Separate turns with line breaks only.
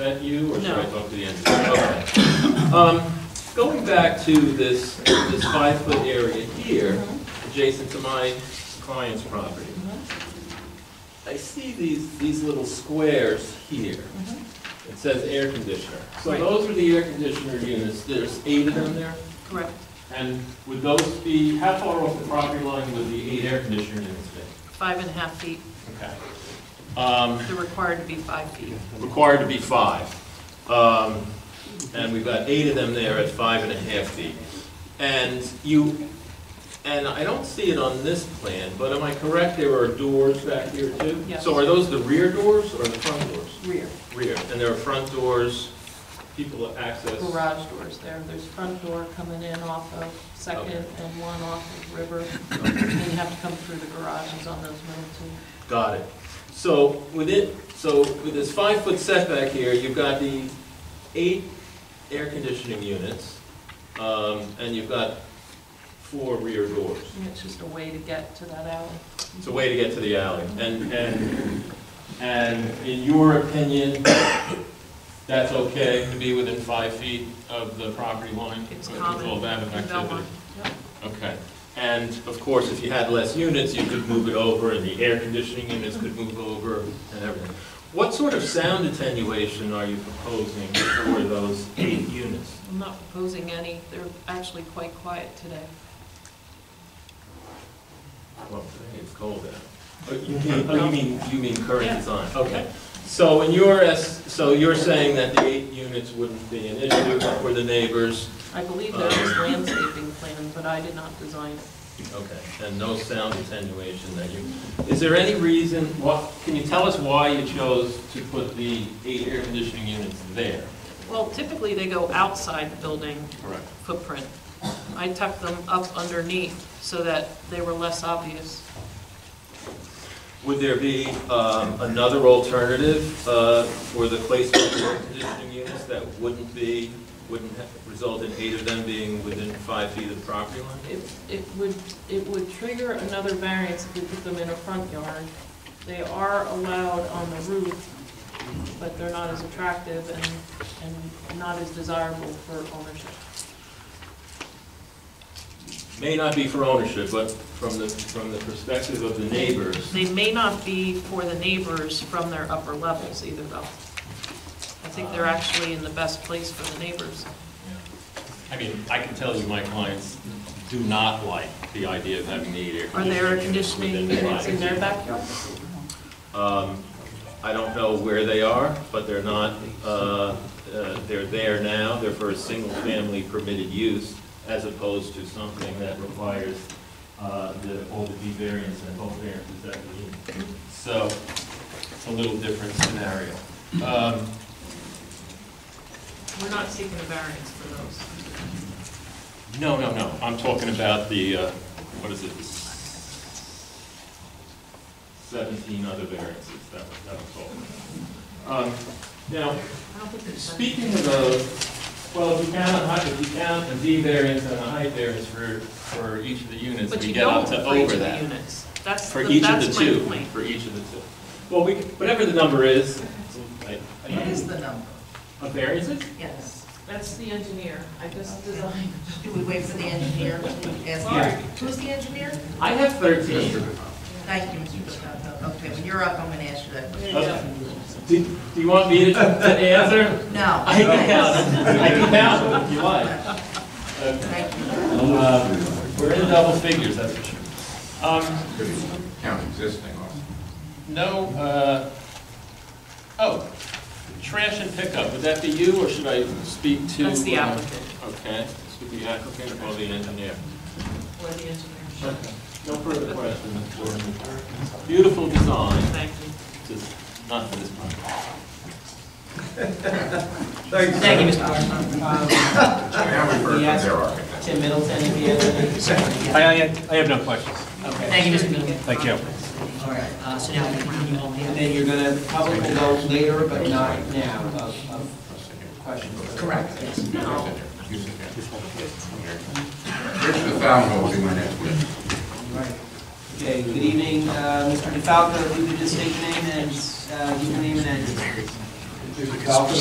at you, or should I
No.
talk to the engineer? Okay. Um, Going back to this, this five-foot area here,
Mm-hmm.
adjacent to my client's property,
Mm-hmm.
I see these, these little squares here. It says air conditioner. So
Mm-hmm. Right.
those are the air conditioner units, there's eight of them there?
Correct.
And would those be, how far off the property line would the eight air conditioner units be?
Five and a half feet,
Okay. Um,
they're required to be five feet.
required to be five. Um, And we've got eight of them there at five and a half feet. And you, and I don't see it on this plan, but am I correct, there are doors back here too?
Yes.
So are those the rear doors or the front doors?
Rear.
Rear. And there are front doors, people access?
Garage doors there, there's front door coming in off of Second and one off of River. And you have to come through the garages on those middle
Got it. So with it, so with this five-foot setback here, you've got the eight air conditioning units, um, and you've got four rear doors.
two. And It's just a way to get to that alley.
It's a way to get to the alley. And, and, and in your opinion, that's okay to be within five feet of the property line?
It's
with
common
All that
in Belmont.
activity?
Yep.
Okay. And of course, if you had less units, you could move it over, and the air conditioning units could move over and everything. What sort of sound attenuation are you proposing for those eight units?
I'm not proposing any, they're actually quite quiet today.
Well, today it's cold out. Oh, you mean, oh, you mean, you mean current
Yeah.
design, okay. So in your, es- so you're saying that the eight units wouldn't be an issue for the neighbors?
I believe there was landscaping planned, but I did not design it.
Okay, and no sound attenuation that you, is there any reason, what, can you tell us why you chose to put the eight air conditioning units there?
Well, typically they go outside the building
Correct.
footprint. I tucked them up underneath so that they were less obvious.
Would there be um, another alternative uh, for the placement of air conditioning units that wouldn't be, wouldn't ha- result in eight of them being within five feet of the property line?
It, it would, it would trigger another variance if we put them in a front yard. They are allowed on the roof, but they're not as attractive and, and not as desirable for ownership.
may not be for ownership, but from the, from the perspective of the neighbors,
They may not be for the neighbors from their upper levels either, though. I think they're actually in the best place for the neighbors.
I mean, I can tell you, my clients do not like the idea of having the air
Are there air
conditioning
conditioning
units within
units in their
five.
backyard?
Um, I don't know where they are, but they're not, uh, uh, they're there now, they're for a single-family permitted use, as opposed to something that requires uh, the, all the D variants and both variances that we need. So, it's a little different scenario. Um,
We're not seeking a variance for those.
No, no, no, I'm talking about the, uh, what is it? Seventeen other variances, that was, that was all. Um, Now,
I don't think there's any.
speaking of those, well, if you count, a height- if you count a D variance and a height variance for, for each of the units,
But
we
you
get up
don't
to
for each
over
of the
that.
units. That's,
For
the-
each of the
that's my
two,
point.
for each of the two. Well, we, whatever the number is, I- I-
What is the number?
of variances?
Yes.
That's the engineer, I just designed.
Do we wait for the engineer to ask
Mark.
him? Who's the engineer?
I have thirteen.
Thank you, Mr. Piscopo. Okay, when you're up, I'm going to ask you that question.
Okay. Do do you want me to to answer?
No.
I can count,
thanks.
I can count if you like. Uh,
Thank you.
uh, We're in double figures, that's for sure. Um,
Could count existing also.
No, uh, oh, trash and pickup, would that be you, or should I speak to?
That's the
uh,
applicant.
Okay, speak to the applicant or the engineer.
Or the engineer.
Okay. No further questions. Beautiful design,
Thank you.
just not for this part.
Thank you, Mr. Barton.
Now we've heard from their architect.
Tim Middleton, if you have any.
I, I I have no questions.
Okay,
Thank you, Mr. Meehan.
Thank you.
all right, uh, so now we continue on, and then you're gonna, public will go later, but not now, of, of questions.
Correct, yes.
Here's the fountain hole we went into.
Right. Okay, good evening, uh, Mr. DeFalco, if you could just state your name and, uh, your name and address. Mr. DeFalco,